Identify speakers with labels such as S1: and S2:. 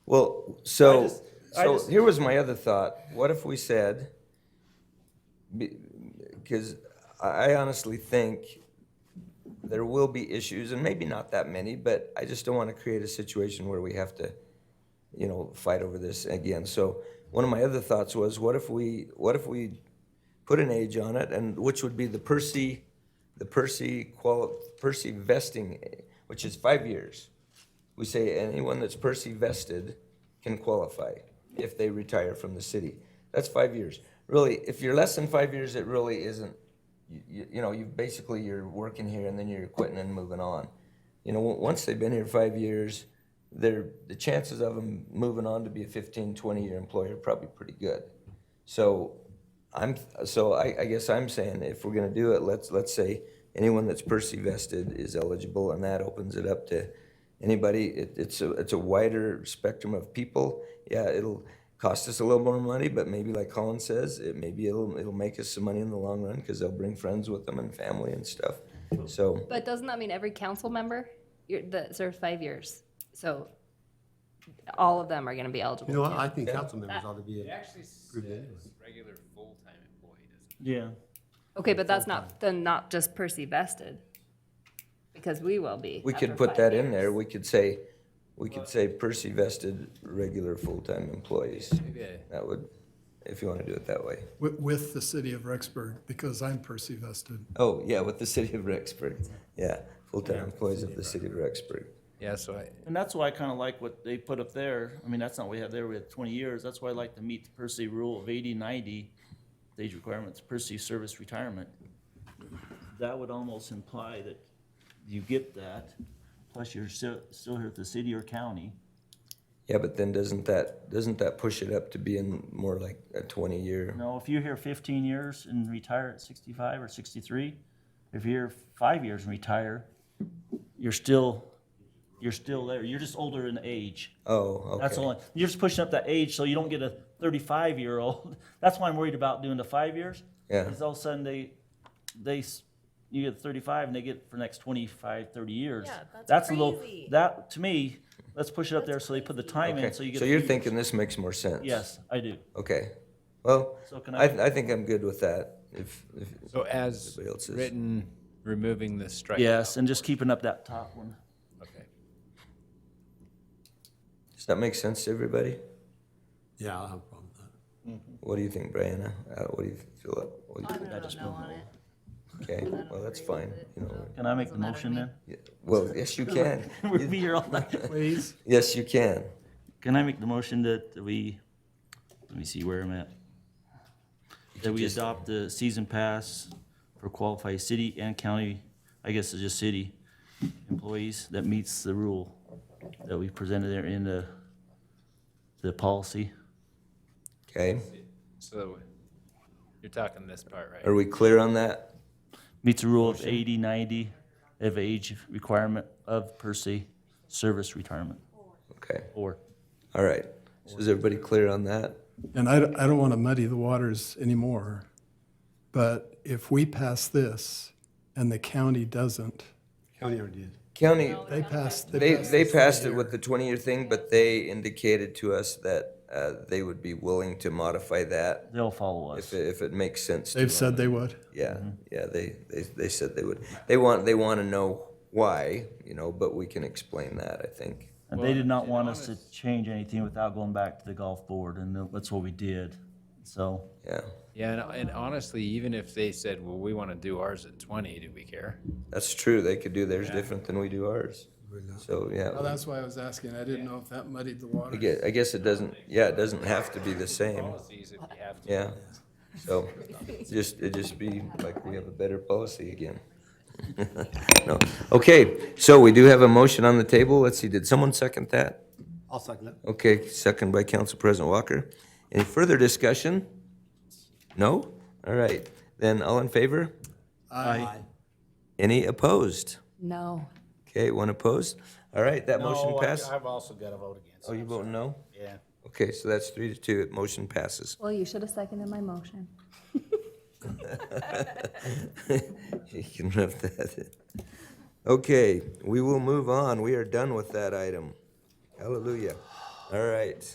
S1: Well, so,
S2: just- I
S1: so
S2: just-
S1: here was my other thought. What if we said, because I I honestly think there will be issues, and maybe not that many, but I just don't want to create a situation where we have to, you know, fight over this again. So one of my other thoughts was, what if we, what if we put an age on it, and which would be the Percy, the Percy qual, Percy vesting, which is five years. We say anyone that's Percy vested can qualify if they retire from the city. That's five years. Really, if you're less than five years, it really isn't. You, you, you know, you basically you're working here and then you're quitting and moving on. You know, on- once they've been here five years, they're, the chances of them moving on to be a 15, 20 year employer are probably pretty good. So I'm, so I, I guess I'm saying if we're gonna do it, let's, let's say anyone that's Percy vested is eligible and that opens it up to anybody. It, it's a, it's a wider spectrum of people. Yeah, it'll cost us a little more money, but maybe like Colin says, it maybe it'll, it'll make us some money in the long run because they'll bring friends with them and family and stuff. So,
S3: But doesn't that mean every council member you're, that served five years? So all of them are going to be eligible.
S4: You know,
S3: too.
S4: I I think council members ought to be,
S5: It
S4: a-
S5: actually
S4: Approved
S5: says
S4: anyway.
S5: regular full-time employee, doesn't
S2: Yeah.
S3: okay, but that's not then not just Percy vested, because we will be.
S1: we could
S3: after
S1: put
S3: five
S1: that in
S3: years.
S1: there. We could say, we could say Percy vested regular full-time employees.
S5: it? Maybe I-
S1: That would, if you want to do it that way.
S6: with, with the city of Rexburg, because I'm Percy vested.
S1: Oh, yeah, with the city of Rexburg. Yeah, full-time employees of the city of Rexburg.
S5: Yeah, so I,
S2: And that's why I kind of like what they put up there. I mean, that's not what we have there. We have 20 years. That's why I like to meet the per se rule of 80, 90, the age requirements, per se service retirement. That would almost imply that you get that, plus you're still, still here at the city or county.
S1: Yeah, but then doesn't that, doesn't that push it up to being more like a twenty-year?
S2: No, if you're here 15 years and retire at 65 or 63, if you're here five years and retire, you're still, you're still there. You're just older in age.
S1: Oh,
S2: That's
S1: okay.
S2: only, you're just pushing up that age so you don't get a 35 year old. That's why I'm worried about doing the five years.
S1: Yeah.
S2: Because all of a sudden they, they, s- you get 35 and they get for the next 25, 30 years.
S7: Yeah, that's
S2: a little-
S7: crazy.
S2: That, to me, let's push it up there so they put the time
S1: Okay,
S2: in so you get.
S1: So
S2: a
S1: you're
S2: few-
S1: thinking this makes more sense?
S2: Yes, I do.
S1: Okay, well,
S2: So can
S1: I,
S2: I,
S1: I think I'm good with that, if, if,
S5: so as
S1: Everybody else is-
S5: written, removing the strike.
S2: yes, and just keeping up that top one.
S5: Okay.
S1: does that make sense to everybody?
S4: yeah, I'll have a problem with that.
S1: What do you think, Brianna? Uh, what do you feel? what do
S7: I
S1: you-
S7: don't know on it.
S1: Okay, well, that's fine, you know,
S2: Can I make the
S7: Doesn't matter to
S2: motion
S7: me.
S2: then?
S1: yeah. well, yes, you can,
S2: We'll be here all night.
S6: Please,
S1: yes, you can.
S2: Can I make the motion that we, let me see where I'm at. That we
S1: just-
S2: adopt the season pass for qualified city and county, I guess it's just city employees that meets the rule that we presented there in the, the policy.
S1: Okay,
S5: So you're talking this part, right?
S1: are we clear on that?
S2: Meets the rule of 80, 90 of age requirement of per se service retirement
S1: Okay,
S2: or.
S1: all right, so is everybody clear on that?
S6: and I, don't- I don't want to muddy the waters anymore, but if we pass this and the county doesn't,
S4: County already did.
S1: County,
S6: they pass, they
S1: They,
S6: pass
S1: they passed it with the twenty-year thing, but they indicated to us that uh, they would be willing to modify that
S2: They'll follow
S1: if,
S2: us.
S1: it- if it makes sense. to
S6: they've
S1: them.
S6: said they would.
S1: Yeah, yeah, they, they, they said they would. They want, they want to know why, you know, but we can explain that, I think.
S2: And they did not want us to change anything without going back to the golf board, and that's what we did. So,
S1: Yeah,
S5: Yeah, and, and honestly, even if they said, well, we want to do ours at 20, do we care?
S1: that's true. They could do theirs different than we do ours. So,
S6: Well,
S1: yeah,
S6: that's why I was asking. I didn't know if that muddied the
S1: I
S6: waters.
S1: guess, I guess it doesn't, yeah, it doesn't have to be the same,
S5: Policies if you have to.
S1: yeah. So, just, it just be like we have a better policy again. No. Okay, so we do have a motion on the table. Let's see, did someone second that?
S4: I'll second that.
S1: Okay, second by Council President Walker. Any further discussion? No? All right, then all in favor?
S4: Aye.
S1: Any opposed?
S3: No.
S1: Okay, one opposed. All right, that motion
S8: No, I-
S1: passed.
S8: I've also got to vote against.
S1: Oh, you vote no?
S8: Yeah.
S1: Okay, so that's three to two, It motion passes.
S3: Well, you should have seconded my motion.
S1: You can rub that in. Okay, we will move on. We are done with that item. Hallelujah. All right.